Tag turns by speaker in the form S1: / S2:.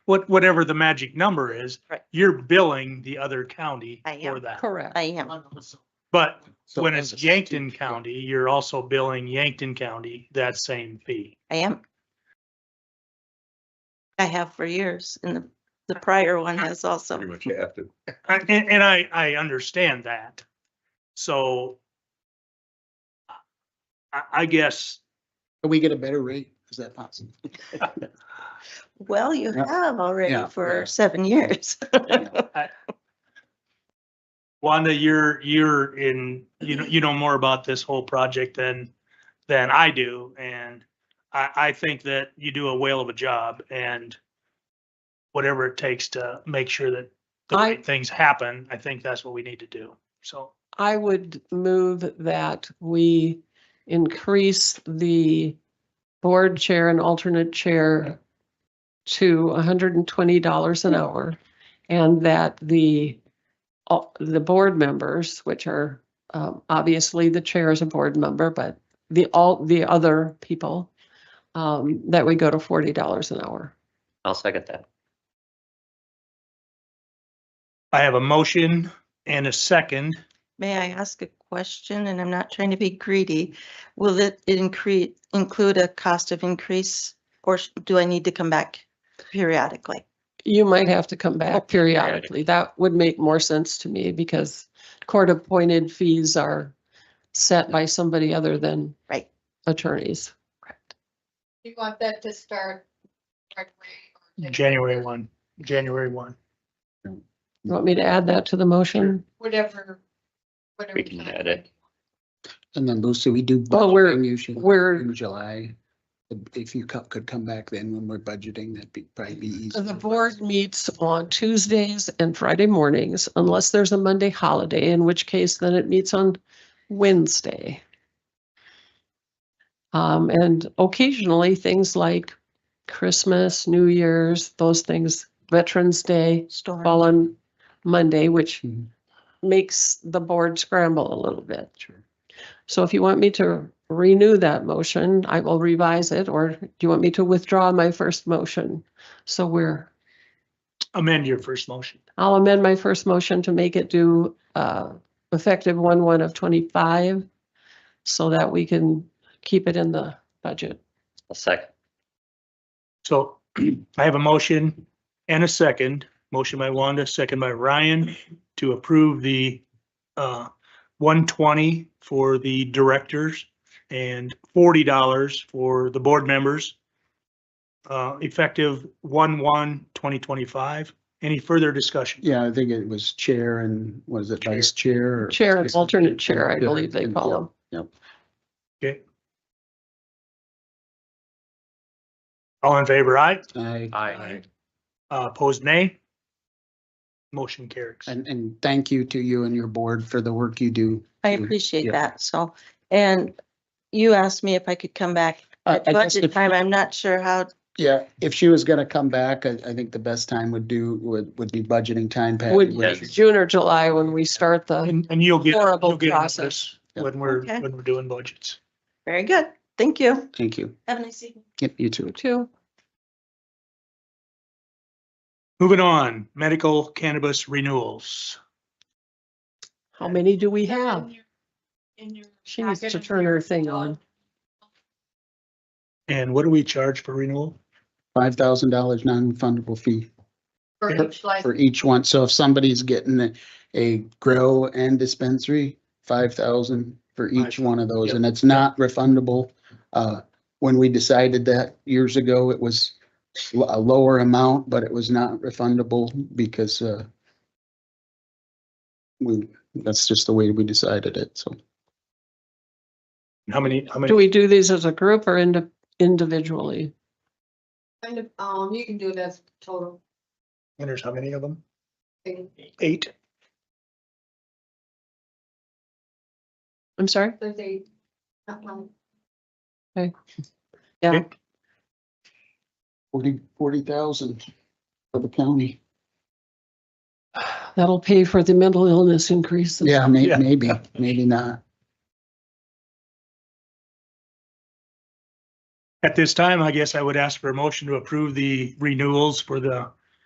S1: what, whatever the magic number is.
S2: Right.
S1: You're billing the other county
S2: I am.
S1: for that.
S3: Correct.
S2: I am.
S1: But
S4: So
S1: when
S4: as
S1: it's
S4: a
S1: Yankton
S4: strategic-
S1: County, you're also billing Yankton County that same fee.
S2: I am. I have for years and the, the prior one has also.
S4: Pretty much have to.
S1: I- And, and I, I understand that. So I, I guess,
S5: Can we get a better rate? Is that possible?
S2: Well, you
S5: Yeah.
S2: have
S5: Yeah,
S2: already
S5: yeah.
S2: for seven years.
S1: Wanda, you're, you're in, you know, you know more about this whole project than, than I do. And I, I think that you do a whale of a job and whatever it takes to make sure that the
S3: I-
S1: right things happen, I think that's what we need to do. So
S3: I would move that we increase the board chair and alternate chair to hundred and twenty dollars an hour and that the, all- the board members, which are um, obviously the chair is a board member, but the, all, the other people, um, that we go to forty dollars an hour.
S6: I'll second that.
S1: I have a motion and a second.
S2: May I ask a question? And I'm not trying to be greedy. Will it increase, include a cost of increase? Or sh- do I need to come back periodically?
S3: You might have to come back periodically. That would make more sense to me because court-appointed fees are set by somebody other than
S2: Right.
S3: attorneys.
S7: You want that to start right away? or take
S1: January one, January one.
S3: You want me to add that to the motion?
S7: Whatever, whatever.
S6: We can
S7: time
S6: add it.
S5: And then Lucy, we do
S3: Well, we're-
S5: budgeting usually
S3: We're,
S5: in July. If you co- could come back then when we're budgeting, that'd be probably be easy.
S3: the board meets on Tuesdays and Friday mornings unless there's a Monday holiday, in which case then it meets on Wednesday. Um, and occasionally things like Christmas, New Year's, those things, Veterans Day,
S2: Storm,
S3: fall on Monday, which
S5: Mhm.
S3: makes the board scramble a little bit.
S5: Sure.
S3: So if you want me to renew that motion, I will revise it, or do you want me to withdraw my first motion? So we're,
S1: Amend your first motion.
S3: I'll amend my first motion to make it do uh, effective one one of twenty-five so that we can keep it in the budget.
S6: I'll second.
S1: So I have a motion and a second, motion by Wanda, second by Ryan, to approve the uh, one twenty for the directors and forty dollars for the board members. Uh, effective one, one, twenty twenty-five. Any further discussion?
S5: Yeah, I think it was chair and was it vice chair? or-
S3: Chair and alternate chair, I
S5: Yeah,
S3: believe they
S5: and-
S3: call them.
S1: Okay. All in favor, aye?
S5: I,
S6: Aye.
S1: Uh, Opposed, nay? Motion carries.
S5: and, and thank you to you and your board for the work you do.
S2: I
S5: Mm,
S2: appreciate
S5: yeah.
S2: that. So, and you asked me if I could come back
S3: Uh,
S5: I-
S2: at
S5: I guess
S2: budget
S5: if-
S2: time. I'm not sure how,
S5: Yeah, if she was gonna come back, I, I think the best time would do, would, would be budgeting time. Patty,
S3: Would
S5: wouldn't
S6: Yes.
S5: you?
S3: June or July when we start the,
S1: And, and you'll get,
S3: Horrible
S1: you'll get
S3: process.
S1: this when we're,
S2: Okay.
S1: when we're doing budgets.
S2: very good. Thank you.
S5: Thank you.
S2: Have a nice evening.
S5: Yep, you too.
S3: two.
S1: Moving on, medical cannabis renewals.
S3: How many do we
S7: Is that in
S3: have?
S7: your- In your.
S3: She needs
S7: packet
S3: to
S7: of
S3: turn her
S7: yours?
S3: thing on.
S1: And what do we charge for renewal?
S5: Five thousand dollars non-refundable fee.
S7: For
S1: Yeah.
S7: each license.
S5: for each one. So if somebody's getting a- a grow and dispensary, five thousand for each
S1: Five.
S5: one of those,
S1: Yep.
S5: and it's not refundable. Uh, when we decided that years ago, it was l- a lower amount, but it was not refundable because, uh, we, that's just the way we decided it, so.
S1: How many, how
S3: Do
S1: many?
S3: we do these as a group or indi- individually?
S7: Kind of, um, you can do it as total
S1: And there's how many of them?
S7: thing.
S1: Eight.
S3: I'm sorry?
S7: There's a, not one.
S3: Yeah,
S1: Okay.
S5: Forty, forty thousand for the county.
S3: that'll pay for the mental illness increases.
S5: Yeah, may,
S1: Yeah.
S5: maybe, maybe not.
S1: At this time, I guess I would ask for a motion to approve the renewals for the